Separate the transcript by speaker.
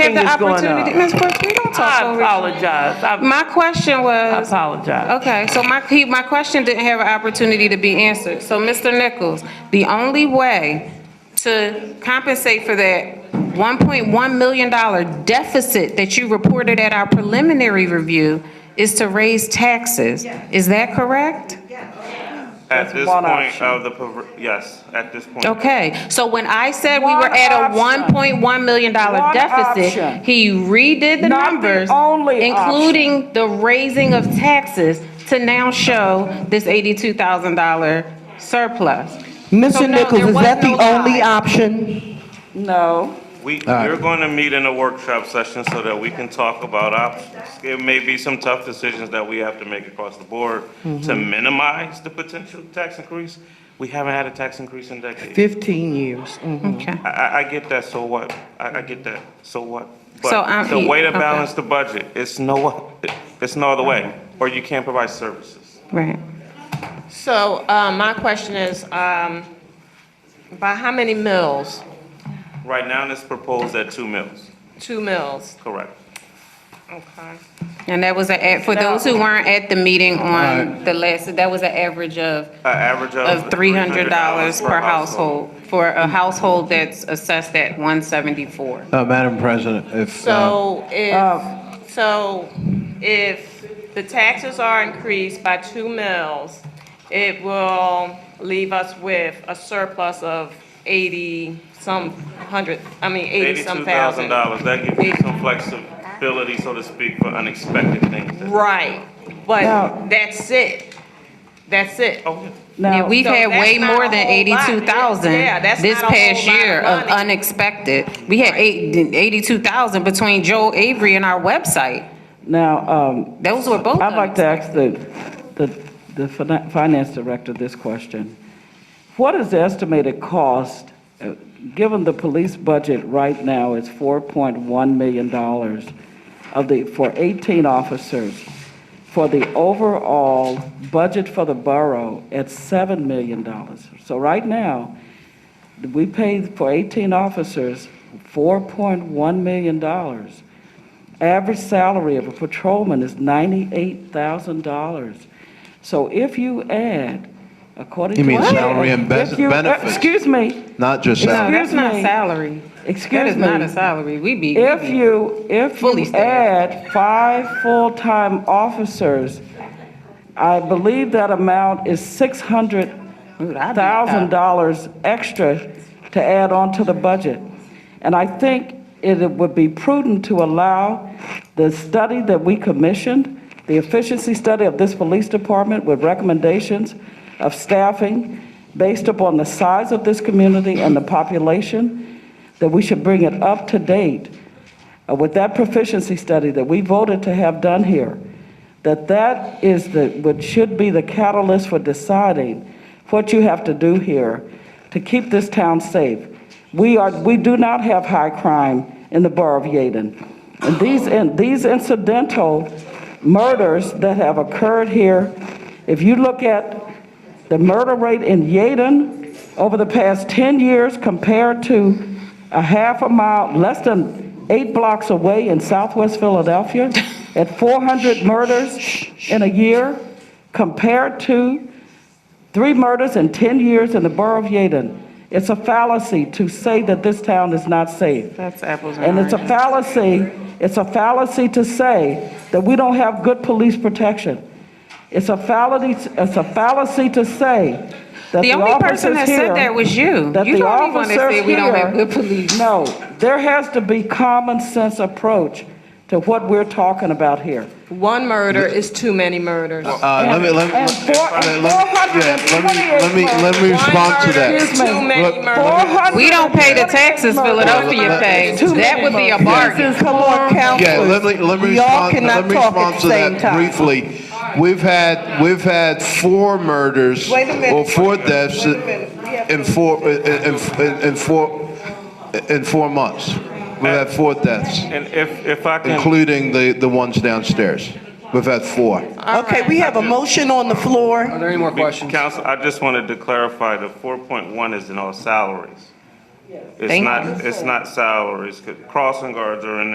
Speaker 1: had the
Speaker 2: is going
Speaker 1: opportunity,
Speaker 2: up.
Speaker 1: Ms. Brooks, we don't talk
Speaker 2: I
Speaker 1: over. each other.
Speaker 2: apologize. I
Speaker 1: My question
Speaker 2: I
Speaker 1: was,
Speaker 2: apologize.
Speaker 1: okay, so my, he- my question didn't have an opportunity to be answered. So, Mr. Nichols, the only way to compensate for that $1.1 million deficit that you reported at our preliminary review is to raise taxes. Is that correct?
Speaker 3: At this
Speaker 2: one
Speaker 3: point
Speaker 2: option.
Speaker 3: of the, perver- yes, at this point.
Speaker 1: Okay, so when I said we were
Speaker 2: One
Speaker 1: at a
Speaker 2: option.
Speaker 1: $1.1 million
Speaker 2: One
Speaker 1: deficit,
Speaker 2: option.
Speaker 1: he redid the
Speaker 2: Not the
Speaker 1: numbers,
Speaker 2: only
Speaker 1: including the raising of taxes, to now show this $82,000 surplus. So
Speaker 4: Mr.
Speaker 1: no,
Speaker 4: Nichols,
Speaker 1: there was
Speaker 4: is that the
Speaker 1: no
Speaker 4: only
Speaker 1: tie.
Speaker 4: option?
Speaker 2: No.
Speaker 3: We, we're going to meet in a workshop session so that we can talk about options. It may be some tough decisions that we have to make across the board to
Speaker 1: Mm-hmm.
Speaker 3: minimize the potential tax increase. We haven't had a tax increase in decades.
Speaker 4: 15 years. mhm.
Speaker 1: Okay.
Speaker 3: I, I, I get that, so what? I, I get that, so what?
Speaker 1: So, um,
Speaker 3: But the
Speaker 1: he-
Speaker 3: way to
Speaker 1: okay.
Speaker 3: balance the budget, it's no, it's no other way, or you can't provide services.
Speaker 1: Right.
Speaker 5: So uh, my question is, um, by how many mills?
Speaker 3: Right now, it's proposed at two mills,
Speaker 5: Two mills,
Speaker 3: correct?
Speaker 5: okay.
Speaker 1: And that was a, for those who weren't at the meeting on
Speaker 4: Right.
Speaker 1: the last, that was an average of,
Speaker 3: An average of.
Speaker 1: of $300 per household, for a household that's assessed at 174.
Speaker 6: Uh, Madam President, if,
Speaker 5: So
Speaker 6: uh,
Speaker 1: Um.
Speaker 5: if, so if the taxes are increased by two mills, it will leave us with a surplus of 80 some hundred, I mean, 80
Speaker 3: Eighty-two
Speaker 5: some thousand.
Speaker 3: thousand dollars, that gives you some flexibility, so to speak, for unexpected things. that-
Speaker 5: Right,
Speaker 2: Now-
Speaker 5: but that's it. That's it.
Speaker 3: Oh, yeah.
Speaker 1: Yeah, we've
Speaker 5: So
Speaker 1: had
Speaker 5: that's
Speaker 1: way
Speaker 5: not
Speaker 1: more
Speaker 5: a
Speaker 1: than
Speaker 5: whole lot.
Speaker 1: eighty-two thousand
Speaker 5: Yeah, that's
Speaker 1: this
Speaker 5: not a whole
Speaker 1: past
Speaker 5: lot of
Speaker 1: year of
Speaker 5: money.
Speaker 1: unexpected. We had eight, eighty-two thousand between Joel Avery and our website.
Speaker 2: Now, um,
Speaker 1: Those were both
Speaker 2: I'd like to
Speaker 1: unexpected.
Speaker 2: ask the, the, the fina- finance director this question. What is the estimated cost, uh, given the police budget right now is $4.1 million of the, for 18 officers, for the overall budget for the borough at $7 million? So right now, we pay for 18 officers $4.1 million. Average salary of a patrolman is $98,000. So if you add, according to...
Speaker 6: You mean
Speaker 2: What?
Speaker 6: salary and bes-
Speaker 2: If you- uh,
Speaker 6: benefits?
Speaker 2: Excuse me,
Speaker 6: not just uh,
Speaker 2: No,
Speaker 6: that.
Speaker 1: No, that's
Speaker 2: Excuse
Speaker 1: not
Speaker 2: me.
Speaker 1: salary. That
Speaker 2: excuse
Speaker 1: is not a
Speaker 2: me.
Speaker 1: salary. We be.
Speaker 2: If you, if
Speaker 1: Fully
Speaker 2: you
Speaker 1: staffed.
Speaker 2: add five full-time officers, I believe that amount is
Speaker 1: Dude, I'd be
Speaker 2: $600,000 extra to add on to the budget. And I think it would be prudent to allow the study that we commissioned, the efficiency study of this police department with recommendations of staffing based upon the size of this community and the population, that we should bring it up to date uh, with that proficiency study that we voted to have done here, that that is the, what should be the catalyst for deciding what you have to do here to keep this town safe. We are, we do not have high crime in the borough of Yaden. And these, and these incidental murders that have occurred here, if you look at the murder rate in Yaden over the past 10 years compared to a half a mile, less than eight blocks away in southwest Philadelphia, at 400 murders in a year, compared to three murders in 10 years in the borough of Yaden. It's a fallacy to say that this town is not safe.
Speaker 1: That's apples and
Speaker 2: And it's a
Speaker 1: oranges.
Speaker 2: fallacy, it's a fallacy to say that we don't have good police protection. It's a fallacy, it's a fallacy to say that
Speaker 1: The
Speaker 2: the
Speaker 1: only person
Speaker 2: officers
Speaker 1: that
Speaker 2: here.
Speaker 1: said that was you.
Speaker 2: that
Speaker 1: You
Speaker 2: the
Speaker 1: don't even want to say
Speaker 2: officers
Speaker 1: we don't have
Speaker 2: here-
Speaker 1: good police.
Speaker 2: No, there has to be common sense approach to what we're talking about here.
Speaker 5: One murder is too many murders.
Speaker 6: Uh, let me, let me,
Speaker 2: And four-
Speaker 6: let me, let me,
Speaker 2: and
Speaker 6: let me, let
Speaker 5: One
Speaker 6: me respond to
Speaker 5: murder
Speaker 6: that.
Speaker 5: is Too many
Speaker 6: Look,
Speaker 5: murders.
Speaker 1: We don't pay the taxes Philadelphia pays.
Speaker 2: Too
Speaker 1: That
Speaker 2: many
Speaker 1: would be a
Speaker 2: murders.
Speaker 1: bargain.
Speaker 2: Come on, count.
Speaker 6: Yeah, let me, let me
Speaker 4: We all
Speaker 6: respond,
Speaker 4: cannot
Speaker 6: let me
Speaker 4: talk at
Speaker 6: respond
Speaker 4: the
Speaker 6: to
Speaker 4: same
Speaker 6: that
Speaker 4: time.
Speaker 6: briefly. We've had, we've had four murders,
Speaker 4: Wait a minute.
Speaker 6: or four deaths
Speaker 4: Wait a minute. We have
Speaker 6: in four, in, in, in four, in four months. We've had four deaths,
Speaker 3: And if, if I can.
Speaker 6: including the, the ones downstairs. We've had four.
Speaker 4: Okay, we have a motion on the floor.
Speaker 7: Are there any more questions?
Speaker 3: Council, I just wanted to clarify, the four point one is in all salaries. It's
Speaker 1: Thank
Speaker 3: not, it's not salaries, 'cause crossing guards are in